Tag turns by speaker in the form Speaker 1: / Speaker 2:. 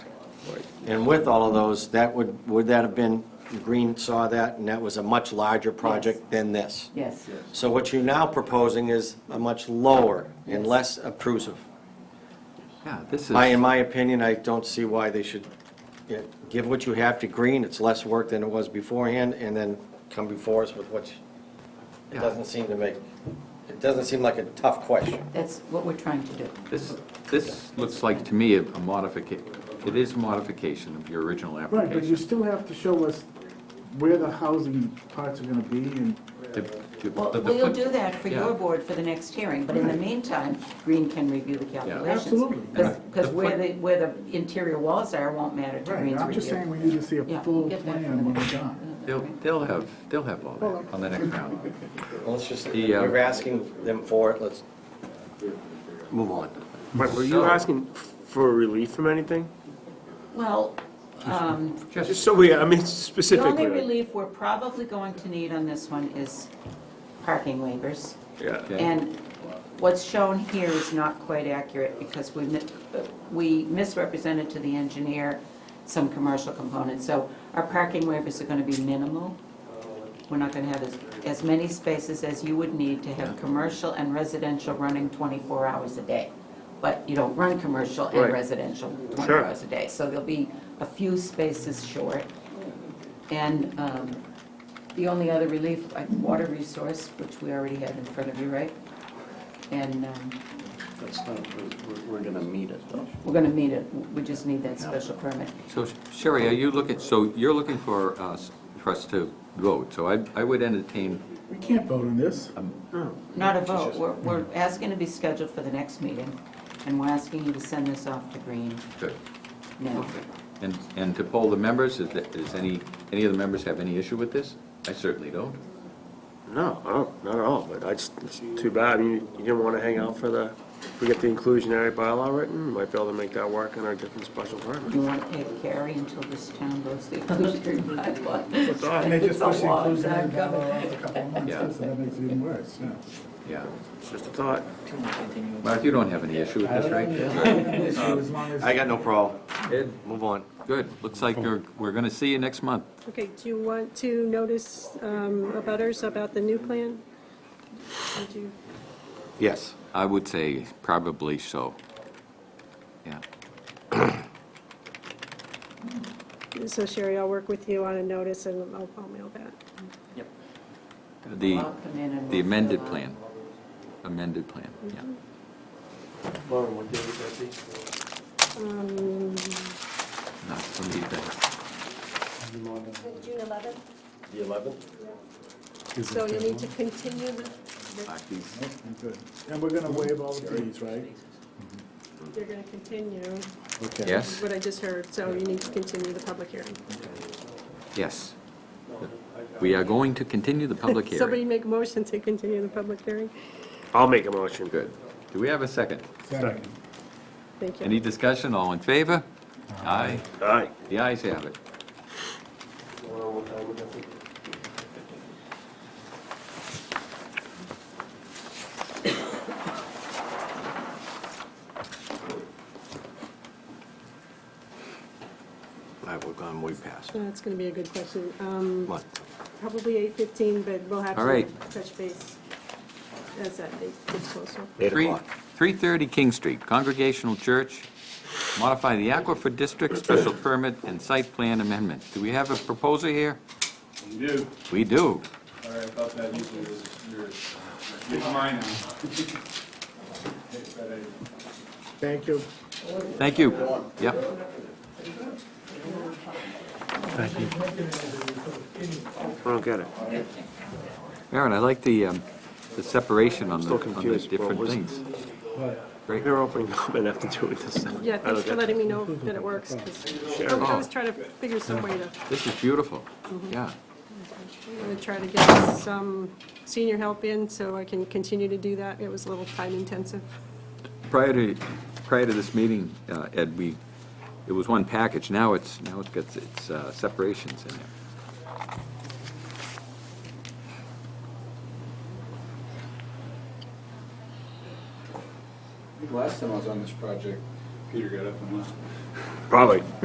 Speaker 1: And with all of those, that would, would that have been, Green saw that, and that was a much larger project than this.
Speaker 2: Yes,
Speaker 1: So what you're now proposing is a much lower and
Speaker 2: Yes.
Speaker 1: less obtrusive.
Speaker 3: Yeah, this
Speaker 1: I, in
Speaker 3: is,
Speaker 1: my opinion, I don't see why they should yeah, give what you have to Green, it's less work than it was beforehand, and then come before us with what, you- it
Speaker 3: Yeah.
Speaker 1: doesn't seem to make, it doesn't seem like a tough question.
Speaker 2: that's what we're trying to do.
Speaker 3: this, this looks like to me a modification, it is modification of your original
Speaker 4: Right, but you
Speaker 3: application.
Speaker 4: still have to show us where the housing parts are gonna be and,
Speaker 3: The- the-
Speaker 2: Well,
Speaker 3: the- the
Speaker 2: we'll
Speaker 3: foot-
Speaker 2: do that for your
Speaker 3: yeah.
Speaker 2: board for the next hearing, but in the meantime, Green can review the calculations.
Speaker 4: Absolutely.
Speaker 2: Because
Speaker 3: The
Speaker 2: where
Speaker 3: foot-
Speaker 2: the, where the interior walls are won't matter to Green's
Speaker 4: right,
Speaker 2: review. Uh,
Speaker 4: I'm just saying we need to see a
Speaker 2: Yeah,
Speaker 4: full
Speaker 2: get that for
Speaker 4: plan
Speaker 2: the
Speaker 4: when we're
Speaker 2: next-
Speaker 4: done.
Speaker 3: They'll, they'll have, they'll have all that on the next round.
Speaker 1: Well, Let's just,
Speaker 3: The, uh,
Speaker 1: we're asking them for it, let's move on.
Speaker 5: Right, were you
Speaker 3: So-
Speaker 5: asking for relief from anything?
Speaker 2: Well, um,
Speaker 5: Just
Speaker 3: Just,
Speaker 5: so we, I mean,
Speaker 2: the only
Speaker 5: specifically. like-
Speaker 2: relief we're probably going to need on this one is parking waivers.
Speaker 5: Yeah.
Speaker 3: okay.
Speaker 2: And what's shown here is not quite accurate because we, mi- we misrepresented to the engineer some commercial components. So our parking waivers are going to be minimal. We're not going to have as, as many spaces as you would need to have commercial and residential running 24 hours a day. But you don't run commercial and
Speaker 5: Right.
Speaker 2: residential 24
Speaker 5: Sure.
Speaker 2: hours a day. So there'll be a few spaces short. And um, the only other relief, like water resource, which we already have in front of you, right? And um,
Speaker 6: That's not, we're, we're gonna meet it though.
Speaker 2: we're going to meet it, we just need that special permit.
Speaker 3: So Sherry, are you looking, so you're looking for us, for us to vote, so I, I would entertain,
Speaker 4: We can't vote on this.
Speaker 2: Not a vote, we're, we're asking to be scheduled for the next meeting, and we're asking you to send this off to Green
Speaker 3: good.
Speaker 2: now.
Speaker 3: And, and to poll the members, is that, is any, any of the members have any issue with this? I certainly don't.
Speaker 5: No, I don't, not at all, but I just, it's too bad, you, you didn't wanna hang out for the, if we get the inclusionary bylaw written, might be able to make that work in our different special permit.
Speaker 2: You want to pay carry until this town goes the inclusionary bylaw?
Speaker 4: And they just
Speaker 2: It's a
Speaker 4: push the
Speaker 2: long
Speaker 4: inclusionary
Speaker 2: time coming.
Speaker 4: bylaw out a couple of
Speaker 3: Yeah.
Speaker 4: months, so that makes it even worse, yeah.
Speaker 3: Yeah.
Speaker 5: It's just a thought.
Speaker 3: Mark, you don't have any issue with
Speaker 4: I
Speaker 3: this,
Speaker 4: don't
Speaker 3: right?
Speaker 4: have any issue as long as-
Speaker 1: I got no problem.
Speaker 3: Good.
Speaker 1: Move on.
Speaker 3: Good, looks like you're, we're gonna see you next month.
Speaker 7: Okay, do you want to notice um, abutters about the new plan? Would you-
Speaker 1: Yes.
Speaker 3: I would say probably so. Yeah.
Speaker 7: So Sherry, I'll work with you on a notice and I'll I'll mail that.
Speaker 3: The,
Speaker 2: I'll come in and
Speaker 3: the
Speaker 2: we'll
Speaker 3: amended
Speaker 2: fill out.
Speaker 3: plan, amended plan, yeah.
Speaker 2: Mm-hmm.
Speaker 5: Lauren, what day would that be?
Speaker 7: Um,
Speaker 3: Not for me, but
Speaker 8: June 11th,
Speaker 5: The eleventh?
Speaker 8: so you need to continue the, the-
Speaker 3: like these-
Speaker 4: Good. And we're gonna waive all the fees, right?
Speaker 7: You're going to continue,
Speaker 4: Okay.
Speaker 3: Yes,
Speaker 7: what I just heard, so you need to continue the public hearing.
Speaker 3: yes. We are going to continue the public
Speaker 7: Somebody
Speaker 3: hearing.
Speaker 7: make a motion to continue the public hearing?
Speaker 5: I'll make a motion.
Speaker 3: Good. Do we have a second?
Speaker 4: Second.
Speaker 7: Thank you.
Speaker 3: Any discussion, all in favor? Aye.
Speaker 5: Aye.
Speaker 3: The ayes have it.
Speaker 1: I will go on way past.
Speaker 7: That's going to be a good question. Um,
Speaker 1: Come on.
Speaker 7: Probably 8:15, but we'll have
Speaker 3: All right.
Speaker 7: to touch base as that date gets closer.
Speaker 1: Eight
Speaker 3: Three-
Speaker 1: o'clock.
Speaker 3: 330 King Street, Congregational Church, modify the Aquifer District Special Permit and Site Plan Amendment. Do we have a proposer here?
Speaker 9: You do.
Speaker 3: We do.
Speaker 9: All right, about that, usually this is yours. It's mine now. But I-
Speaker 4: Thank you.
Speaker 3: Thank you. Yep.
Speaker 5: I don't get it.
Speaker 3: Aaron, I like the, um, the separation on the,
Speaker 5: Still
Speaker 3: on the
Speaker 5: confused. What
Speaker 3: different
Speaker 5: was-
Speaker 3: things. Great.
Speaker 5: Your opening comment have to do with this.
Speaker 7: Yeah,
Speaker 5: I don't
Speaker 7: thanks
Speaker 5: get
Speaker 7: for
Speaker 5: it.
Speaker 7: letting me know that it works, 'cause I was- I was trying to figure some way to,
Speaker 3: This is beautiful. Yeah.
Speaker 7: I'm gonna try to get some senior help in so I can continue to do that. It was a little time intensive.
Speaker 3: Prior to, prior to this meeting, uh, Ed, we, it was one package. Now it's, now it's got its uh, separations in there.
Speaker 6: Last time I was on this project,
Speaker 9: Peter got up and left.
Speaker 5: Probably.